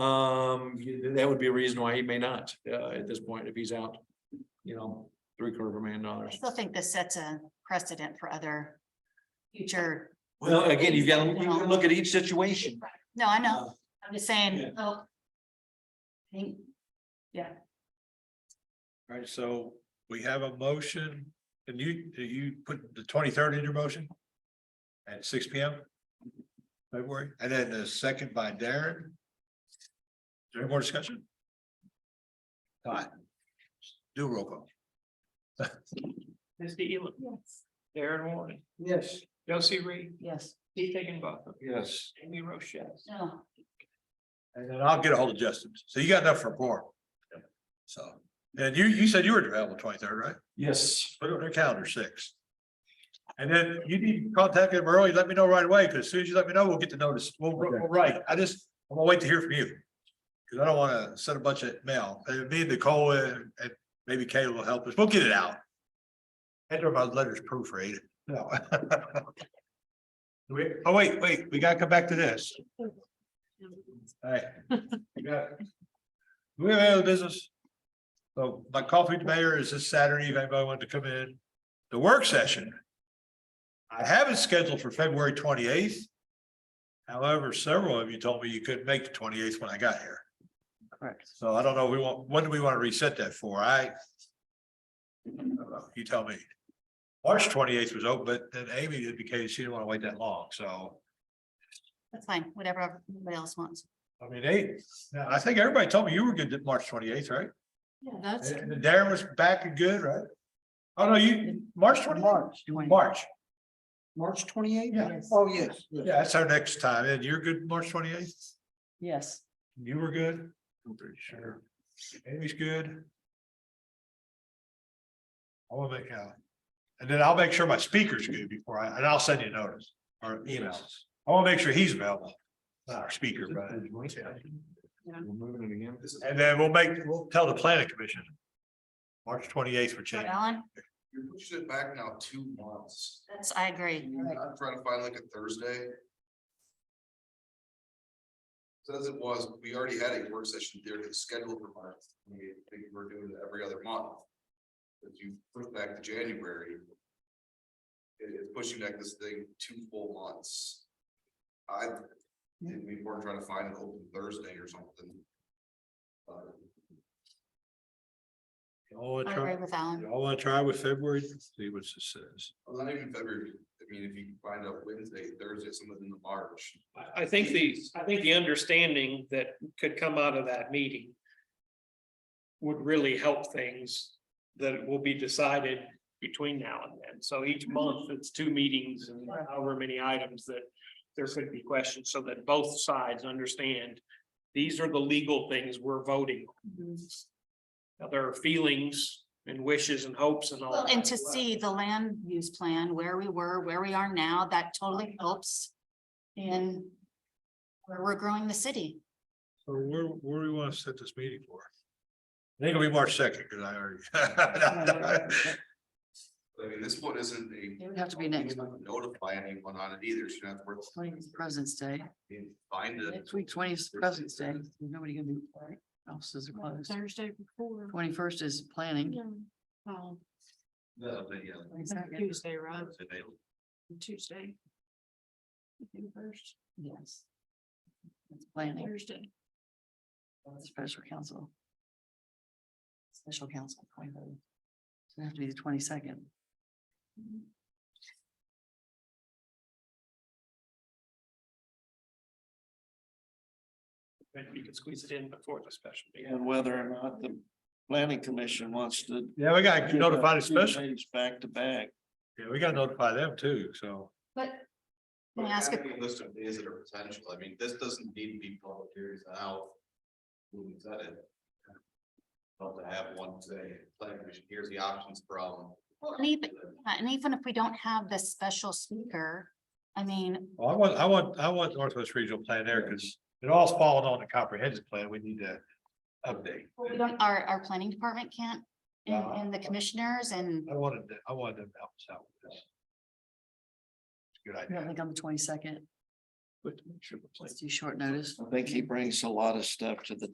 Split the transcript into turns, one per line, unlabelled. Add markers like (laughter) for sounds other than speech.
Um, you- that would be a reason why he may not, uh, at this point, if he's out, you know, three quarter of a million
I
dollars.
still think this sets a precedent for other future.
Well, again, you've got to, you can look at each situation.
No, I know. I'm just
Yeah.
saying, oh. I think,
All right, so we have a motion, and you, do you put the twenty-third in your motion? At six P M? February, and then the second by Darren? Is there any more discussion? Todd? Do a roll call.
Misty Elam.
Yes.
Darren Warren.
Yes.
Josie Reed.
yes,
Steve Higginbotham.
Yes.
Amy Rochelle.
no,
And then I'll get a hold of Justin, so you got enough for a report. So, and you, you said you were available twenty-third, right?
Yes.
Put it on their calendar, six. And then you need to contact them early, let me know right away, because as soon as you let me know, we'll get the notice, we'll, we'll
Okay.
write, I just, I'm gonna wait to hear from you. Because I don't wanna send a bunch of mail, Uh, me and Nicole and, and maybe Kayla will help us, we'll get it out. And my letters proofread, no. (laughs) Do we- oh, wait, wait, we gotta come back to this. Alright. We got it. Do we have any other business? So my coffee with the mayor is this Saturday, if anybody wanted to come in, the work session. I have it scheduled for February twenty eighth. However, several of you told me you couldn't make the twenty eighth when I got here.
Correct.
So I don't know, we want, when do we want to reset that for? I. I don't know, You tell me. March twenty eighth was open, but then Amy indicated she didn't want to wait that long, so.
that's fine, whatever everybody else wants.
I mean, they, now, I think everybody told me you were good at March twenty eighth, right?
Yeah, that's.
And Darren was back and good, right? Oh, no, you, March twenty,
March,
March,
March twenty-eight?
Yeah.
Oh, yes. yes.
yeah, that's our next time, and you're good March twenty eighth?
Yes.
You were good? I'm pretty sure. Amy's good. I will make out. And then I'll make sure my speaker's good before I, and I'll send you a notice or emails. I want to make sure he's available. Not our speaker, but.
We're moving it again.
And then we'll make, we'll tell the planning commission. March twenty eighth for change.
Alan,
You're pushing it back now two months.
that's, I agree.
Can you not try to find like a Thursday? So as it was, we already had a work session there to schedule for March. We think we're doing it every other month. If you put back to January. It is pushing back this thing two full months. I, think we were trying to find an open Thursday or something. Uh,
Y'all wanna
I
try-
agree with Alan.
y'all wanna try with February, see what this says.
well, not even February, I mean, if you find out Wednesday, Thursday, something in the March.
I, I think the, I think the understanding that could come out of that meeting would really help things that will be decided between now and then. So each
Mhm.
month, it's two meetings and however many items that there could be questions, so that both sides understand these are the legal things we're voting.
Mm-hmm.
on. Now, there are feelings and wishes and hopes and all.
Well,
that
and to
as well.
see the land use plan, where we were, where we are now, that totally helps in where we're growing the city.
So where, where do we wanna set this meeting for? I think it'll be March second, cause I already. (laughs)
I mean, this one isn't a
It would have to be
You
next,
don't even Notify anyone on it either, so you don't have to worry
twentieth is President's Day,
about find it.
next week, twentieth is President's Day, There's nobody gonna be, offices are closed.
Thursday before.
Twenty-first is planning.
Yeah. Oh,
No, but yeah,
22nd
Tuesday, right?
it's available.
Tuesday. I think First,
Yes. It's planning,
Thursday.
special council. Special council, twenty-third. It'd have to be the twenty-second.
But you could squeeze it in before the special meeting.
And whether or not the planning commission wants to.
Yeah, we gotta notify the
Two
special,
days Back to back.
yeah, we gotta notify them too, so.
But
But
Can I ask a-
having List of days that are potential, I mean, this doesn't need to be public hearings now. Who said it? Not to have one say, planning commission, here's the options problem.
Well, and even- and even if we don't have this special speaker, I mean,
Well, I want, I want, I want Northwest Regional Plan there, cause it all's falling on the comprehensive plan, we need to update.
we don't, our, our planning department can't, and,
Uh-huh.
and the commissioners and.
I wanted, to- I wanted them to help us out with this. It's a Good
You
idea.
don't think on the twenty-second?
It's too short notice.
I think he brings a lot of stuff to the